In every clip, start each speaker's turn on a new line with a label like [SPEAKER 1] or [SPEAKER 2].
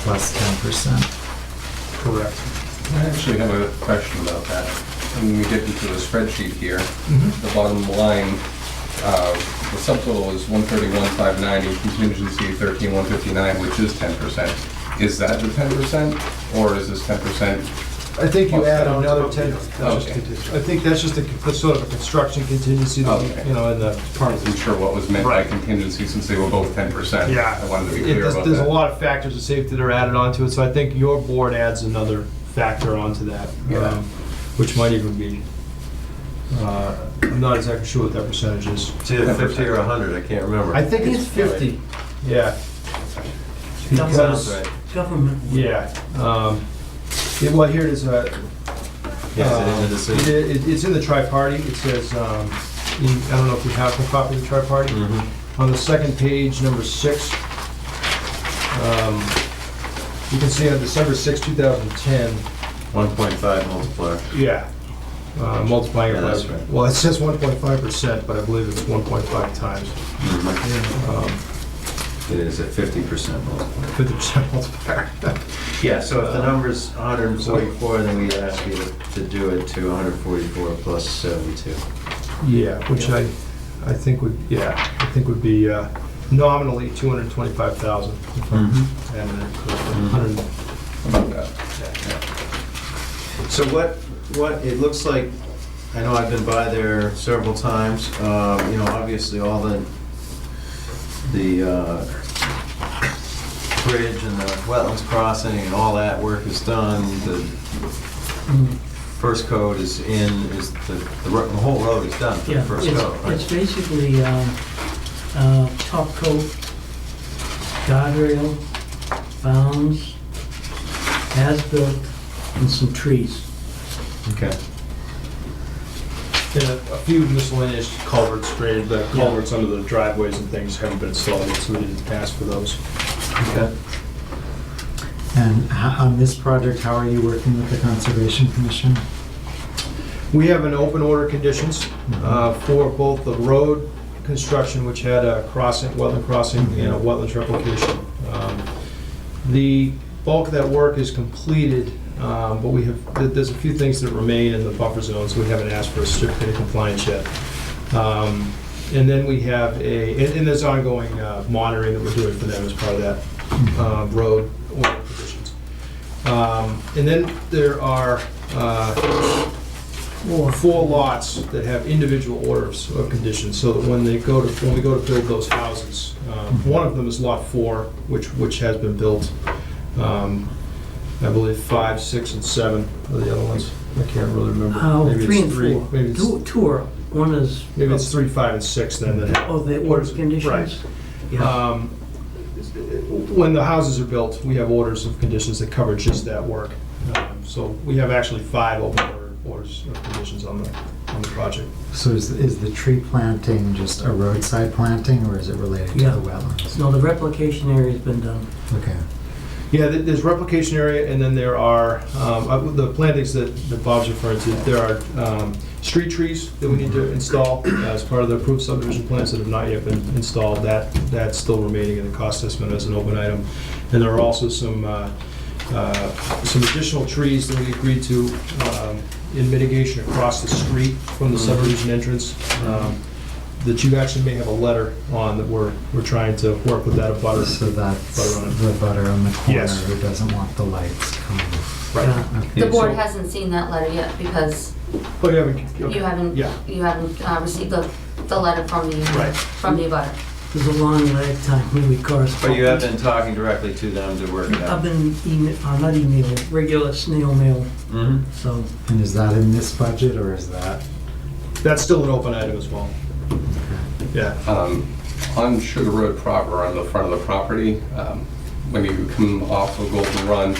[SPEAKER 1] plus ten percent.
[SPEAKER 2] Correct.
[SPEAKER 3] I actually have a question about that. When we get into the spreadsheet here,
[SPEAKER 4] Mm-hmm.
[SPEAKER 3] the bottom line, uh, the subtotal is 131,590, contingency 13,159, which is 10%. Is that the 10%, or is this 10%?
[SPEAKER 4] I think
[SPEAKER 3] Oh,
[SPEAKER 4] you add another ten,
[SPEAKER 3] Okay.
[SPEAKER 4] that's just contingent. I think that's just a, that's sort of a construction contingency, that
[SPEAKER 3] Okay.
[SPEAKER 4] you know, in the part
[SPEAKER 3] I
[SPEAKER 4] of
[SPEAKER 3] wasn't
[SPEAKER 4] the.
[SPEAKER 3] sure what was meant by
[SPEAKER 4] Right.
[SPEAKER 3] contingency since they were both 10%.
[SPEAKER 2] Yeah.
[SPEAKER 3] I wanted to be
[SPEAKER 4] It-
[SPEAKER 3] clear
[SPEAKER 4] There's
[SPEAKER 3] about that.
[SPEAKER 4] there's a lot of factors of safety that are added onto it, so I think your board adds another factor onto that.
[SPEAKER 3] Yeah.
[SPEAKER 4] um, Which might even be, uh, I'm not exactly sure what that percentage is.
[SPEAKER 5] It's either 50 or 100, I can't remember.
[SPEAKER 4] I think it's fifty, yeah. Because,
[SPEAKER 5] Right.
[SPEAKER 1] Government.
[SPEAKER 4] yeah, um, yeah, well, here it is, uh,
[SPEAKER 5] Yes,
[SPEAKER 4] Um,
[SPEAKER 5] it is a decision.
[SPEAKER 4] it- it- It's in the tri-party, it says, um, in- I don't know if you have the copy of the tri-party.
[SPEAKER 5] Mhm.
[SPEAKER 4] On the second page, number six, um, you can see on December 6, 2010,
[SPEAKER 5] 1.5 multiplier.
[SPEAKER 4] yeah, uh, multiplying it
[SPEAKER 5] Yeah,
[SPEAKER 4] by...
[SPEAKER 5] that's right.
[SPEAKER 4] Well, it says 1.5%, but I believe it's 1.5 times, um,
[SPEAKER 5] It is a 50% multiplier.
[SPEAKER 4] 50% multiplier. Uh,
[SPEAKER 5] Yeah, so if the number's 144, then we ask you to- to do it to 144 plus 72.
[SPEAKER 4] Yeah, which I, I think would, yeah, I think would be uh, nominally 225,000, if I'm
[SPEAKER 5] Mm-hmm.
[SPEAKER 4] adding that correctly, 100
[SPEAKER 3] About that.
[SPEAKER 5] So what, what, it looks like, I know I've been by there several times, uh, you know, obviously all the, the uh, bridge and the wetlands crossing and all that work is done, the first coat is in, is, the, the ro- the whole road is done for the
[SPEAKER 1] Yeah,
[SPEAKER 5] first coat,
[SPEAKER 1] it's, it's
[SPEAKER 5] right?
[SPEAKER 1] basically, um, uh, top coat, guardrail, bounds, as-built, and some trees.
[SPEAKER 5] Okay.
[SPEAKER 4] And a a few miscellaneous culverts graded, the culverts under the driveways and things haven't been installed yet, so we didn't ask for those.
[SPEAKER 5] Okay.
[SPEAKER 1] And h- on this project, how are you working with the Conservation Commission?
[SPEAKER 4] We have an open order conditions uh, for both the road construction, which had a crossing, wetland crossing, and a wetlands replication. Um, The bulk of that work is completed, um, but we have, there- there's a few things that remain in the buffer zone, so we haven't asked for a certificate of compliance yet. Um, And then we have a, and- and there's ongoing uh, monitoring that we're doing for them as part of that uh, road order conditions. Um, And then there are uh,
[SPEAKER 1] Or,
[SPEAKER 4] four lots that have individual orders of conditions, so that when they go to, when we go to build those houses, uh, one of them is lot four, which, which has been built. Um, I believe five, six, and seven are the other ones. I can't really remember.
[SPEAKER 1] oh,
[SPEAKER 4] Maybe it's
[SPEAKER 1] three and four.
[SPEAKER 4] Maybe
[SPEAKER 1] Two,
[SPEAKER 4] it's,
[SPEAKER 1] two are, one is,
[SPEAKER 4] maybe it's three, five, and six then that have.
[SPEAKER 1] oh, the
[SPEAKER 4] orders-
[SPEAKER 1] order
[SPEAKER 4] Right.
[SPEAKER 1] conditions? Yeah,
[SPEAKER 4] Um, When the houses are built, we have orders of conditions that cover just that work. Um, So we have actually five open order- orders of conditions on the, on the project.
[SPEAKER 6] So is, is the tree planting just a roadside planting, or is it related to
[SPEAKER 1] Yeah.
[SPEAKER 6] the wetlands?
[SPEAKER 1] no, the replication area's been done.
[SPEAKER 6] Okay.
[SPEAKER 4] Yeah, th- there's replication area, and then there are, um, uh, the plantings that that Bob's referring to, there are um, street trees that we need to install as part of the approved subdivision plans that have not yet been installed. That, that's still remaining in the cost estimate as an open item. And there are also some, uh, uh, some additional trees that we agreed to um, in mitigation across the street from the subdivision entrance. um, That you actually may have a letter on that we're, we're trying to work with that abutter.
[SPEAKER 6] So that's
[SPEAKER 4] Butter on it.
[SPEAKER 6] the butter on the corner
[SPEAKER 4] Yes.
[SPEAKER 6] who doesn't want the lights coming.
[SPEAKER 4] Right.
[SPEAKER 1] Yeah.
[SPEAKER 6] Okay.
[SPEAKER 7] The
[SPEAKER 4] Yeah,
[SPEAKER 7] board
[SPEAKER 4] so-
[SPEAKER 7] hasn't seen that letter yet because
[SPEAKER 4] Oh, you haven't, okay.
[SPEAKER 7] you haven't,
[SPEAKER 4] Yeah.
[SPEAKER 7] you haven't uh, received the, the letter from the,
[SPEAKER 4] Right.
[SPEAKER 7] from the abutter.
[SPEAKER 1] There's a long lag time when we correspond.
[SPEAKER 5] But you have been talking directly to them to work it
[SPEAKER 1] I've
[SPEAKER 5] out?
[SPEAKER 1] been email, uh, not email, regular snail mail,
[SPEAKER 5] Mhm.
[SPEAKER 1] so,
[SPEAKER 6] And is that in this budget, or is that?
[SPEAKER 4] That's still an open item as well. Yeah.
[SPEAKER 3] Um, On Sugar Road proper, on the front of the property, um, when you come off of Golden Run,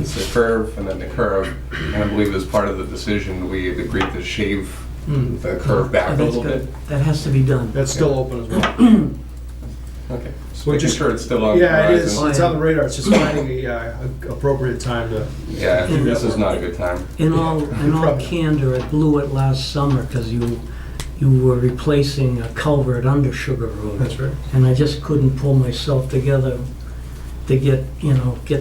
[SPEAKER 3] it's a curve and then the curve, and I believe as part of the decision, we had agreed to shave
[SPEAKER 4] Mm.
[SPEAKER 3] the curve back
[SPEAKER 1] Oh,
[SPEAKER 3] a
[SPEAKER 1] that's
[SPEAKER 3] little
[SPEAKER 1] good.
[SPEAKER 3] bit.
[SPEAKER 1] That has to be done.
[SPEAKER 4] That's still open as well.
[SPEAKER 3] Okay, just
[SPEAKER 4] We're
[SPEAKER 3] making
[SPEAKER 4] just-
[SPEAKER 3] sure it's still on the
[SPEAKER 4] Yeah, it is.
[SPEAKER 3] horizon.
[SPEAKER 4] It's on the radar. It's just finding the uh, appropriate time to,
[SPEAKER 3] Yeah, I think this is not a good time.
[SPEAKER 1] In all, in all
[SPEAKER 4] Probably.
[SPEAKER 1] candor, it blew it last summer because you, you were replacing a culvert under Sugar Road.
[SPEAKER 4] that's right.
[SPEAKER 1] And I just couldn't pull myself together to get, you know, get